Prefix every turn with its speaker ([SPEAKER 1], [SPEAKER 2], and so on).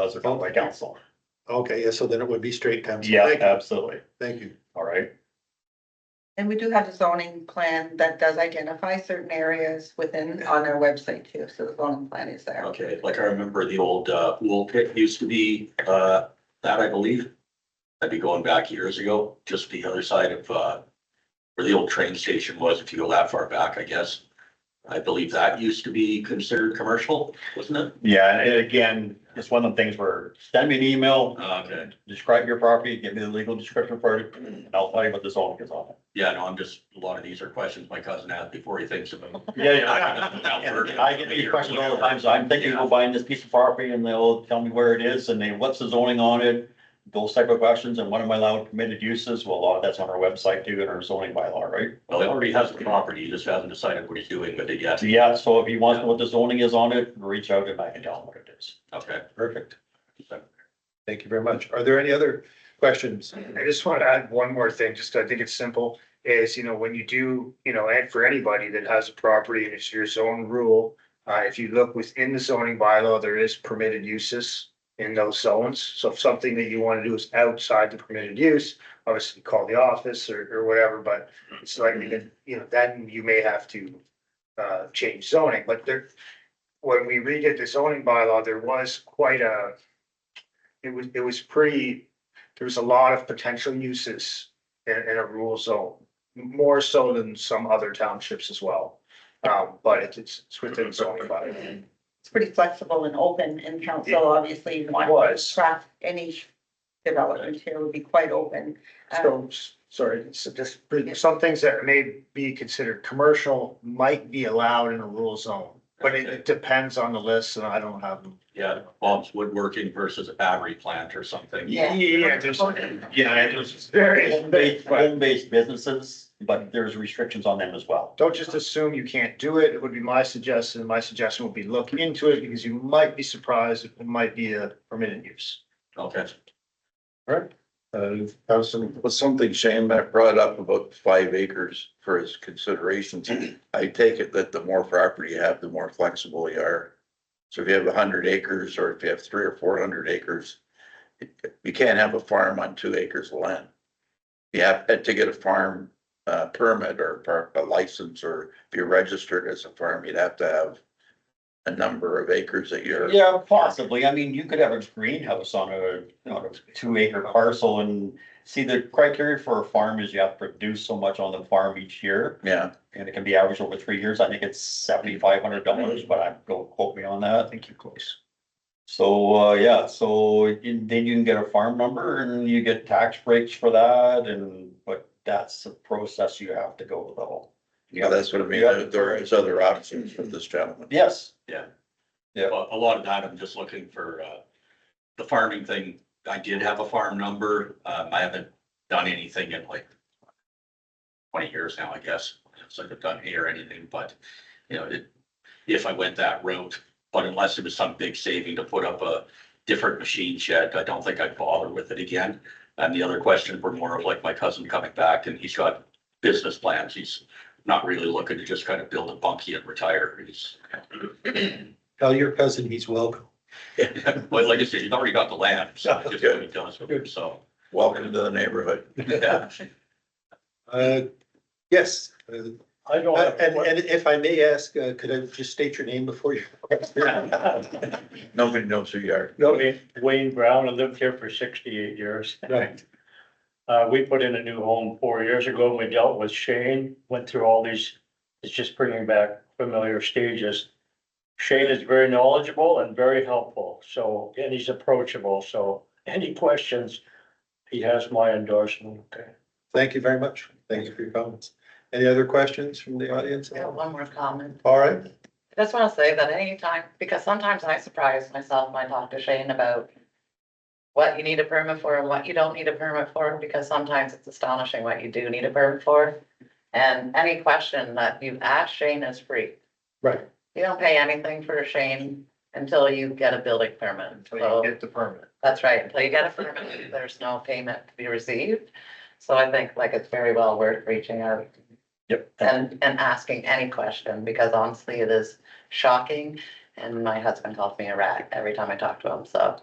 [SPEAKER 1] does or something like council.
[SPEAKER 2] Okay, yeah, so then it would be straight times.
[SPEAKER 1] Yeah,
[SPEAKER 2] Thank you.
[SPEAKER 1] absolutely.
[SPEAKER 2] Thank you.
[SPEAKER 1] All right.
[SPEAKER 3] And we do have a zoning plan that does identify certain areas within, on our website too, so the zoning plan is there.
[SPEAKER 4] Okay, like I remember the old uh pool pit used to be uh that, I believe. I'd be going back years ago, just the other side of uh where the old train station was, if you go that far back, I guess. I believe that used to be considered commercial, wasn't it?
[SPEAKER 1] Yeah, and again, it's one of the things where send me an email, uh,
[SPEAKER 4] Okay.
[SPEAKER 1] describe your property, give me the legal description for it, and I'll tell you what the zoning is on it.
[SPEAKER 4] Yeah, no, I'm just, a lot of these are questions my cousin asked before he thinks of them.
[SPEAKER 1] Yeah, yeah. And I get these questions all the time, so I'm thinking
[SPEAKER 4] Yeah.
[SPEAKER 1] of buying this piece of property and they'll tell me where it is and they, what's the zoning on it? Those type of questions and what am I allowed permitted uses? Well, a lot of that's on our website too in our zoning bylaw, right?
[SPEAKER 4] Well, he already has the property, he just hasn't decided what he's doing with it yet.
[SPEAKER 1] So yeah, so if you want to know what the zoning is on it, reach out and I can tell them what it is.
[SPEAKER 4] Okay.
[SPEAKER 2] Perfect. Thank you very much. Are there any other questions?
[SPEAKER 5] I just want to add one more thing, just I think it's simple, is, you know, when you do, you know, and for anybody that has a property and it's your zone rule. Uh, if you look within the zoning bylaw, there is permitted uses in those zones. So if something that you want to do is outside the permitted use, obviously call the office or, or whatever, but it's like, you know, then you may have to. Uh, change zoning, but there, when we redid the zoning bylaw, there was quite a. It was, it was pretty there was a lot of potential uses in, in a rural zone, more so than some other townships as well. Um, but it's- it's, it's within zoning bylaw.
[SPEAKER 3] It's pretty flexible and open and
[SPEAKER 5] Yeah.
[SPEAKER 3] council obviously you want
[SPEAKER 5] Was.
[SPEAKER 3] to craft any development here would be quite open. Um,
[SPEAKER 6] Uh,
[SPEAKER 5] So, s- sorry, so just, some things that may be considered commercial might be allowed in a rural zone. But it, it depends on the list and I don't have. them.
[SPEAKER 4] Yeah, Bob's woodworking versus a battery plant or something.
[SPEAKER 3] Yeah.
[SPEAKER 5] Yeah, there's.
[SPEAKER 1] Yeah, and there's-
[SPEAKER 5] Very.
[SPEAKER 1] Home-based, home-based businesses, but there's restrictions on them as well.
[SPEAKER 5] Don't just assume you can't do it. It would be my suggestion. My suggestion would be look into it because you might be surprised. It might be a permitted use.
[SPEAKER 4] Okay.
[SPEAKER 2] Uh,
[SPEAKER 7] Well, something Shane Matt brought up about five acres for his considerations. I take it that the more property you have, the more flexible you are. So if you have a hundred acres or if you have three or four hundred acres, you can't have a farm on two acres of land. You have to get a farm uh permit or par- a license or if you're registered as a farm, you'd have to have a number of acres that you're.
[SPEAKER 1] Yeah, possibly. I mean, you could have a greenhouse on a, on a two acre parcel and see the criteria for a farm is you have to produce so much on the farm each year.
[SPEAKER 7] Yeah,
[SPEAKER 1] And it can be averaged over three years. I think it's seventy-five hundred dollars, but I, don't quote me on that.
[SPEAKER 5] I think you're close.
[SPEAKER 1] So, uh, yeah, so you- then you can get a farm number and you get tax breaks for that and, but that's the process you have to go though. You
[SPEAKER 7] yeah,
[SPEAKER 1] have-
[SPEAKER 7] that's what I mean. There- There is other options for this gentleman.
[SPEAKER 1] Yes,
[SPEAKER 4] But a lot of that, I'm just looking for, uh, the farming thing. I did have a farm number. Um, I haven't done anything in like twenty years now, I guess. It's like I've done hay or anything, but, you know, it, if I went that route, but unless it was some big saving to put up a different machine shed, I don't think I'd bother with it again. And the other questions were more of like my cousin coming back and he's got business plans. He's not really looking to just kind of build a bunkie and retire. He's
[SPEAKER 2] Tell your cousin he's welcome.
[SPEAKER 4] Well, like I said, you've already got the land, so it's just what he does with it, so.
[SPEAKER 7] Welcome to the neighborhood.
[SPEAKER 4] yeah.
[SPEAKER 2] Uh, yes, uh,
[SPEAKER 8] I don't
[SPEAKER 2] Uh,
[SPEAKER 8] have, a
[SPEAKER 2] And,
[SPEAKER 8] que-
[SPEAKER 2] and if I may ask, uh, could I just state your name before you?
[SPEAKER 7] Nobody knows who you are.
[SPEAKER 2] No,
[SPEAKER 8] Wayne Brown, I lived here for sixty-eight years.
[SPEAKER 2] right.
[SPEAKER 8] Uh, we put in a new home four years ago, and we dealt with Shane, went through all these, it's just bringing back familiar stages. Shane is very knowledgeable and very helpful, so, and he's approachable, so any questions, he has my endorsement, okay?
[SPEAKER 2] Thank you very much. Thank you for your comments. Any other questions from the audience?
[SPEAKER 6] I have one more comment.
[SPEAKER 2] All right,
[SPEAKER 6] I just want to say that anytime, because sometimes I surprise myself when I talk to Shane about what you need a permit for and what you don't need a permit for, because sometimes it's astonishing what you do need a permit for. And any question that you ask Shane is free.
[SPEAKER 2] Right.
[SPEAKER 6] You don't pay anything for Shane until you get a building permit.
[SPEAKER 5] Until
[SPEAKER 6] So
[SPEAKER 5] you get the permit.
[SPEAKER 6] that's right, until you get a permit, there's no payment to be received. So I think like it's very well worth reaching out
[SPEAKER 1] yep.
[SPEAKER 6] and, and asking any question, because honestly, it is shocking. And my husband calls me a rat every time I talk to him, so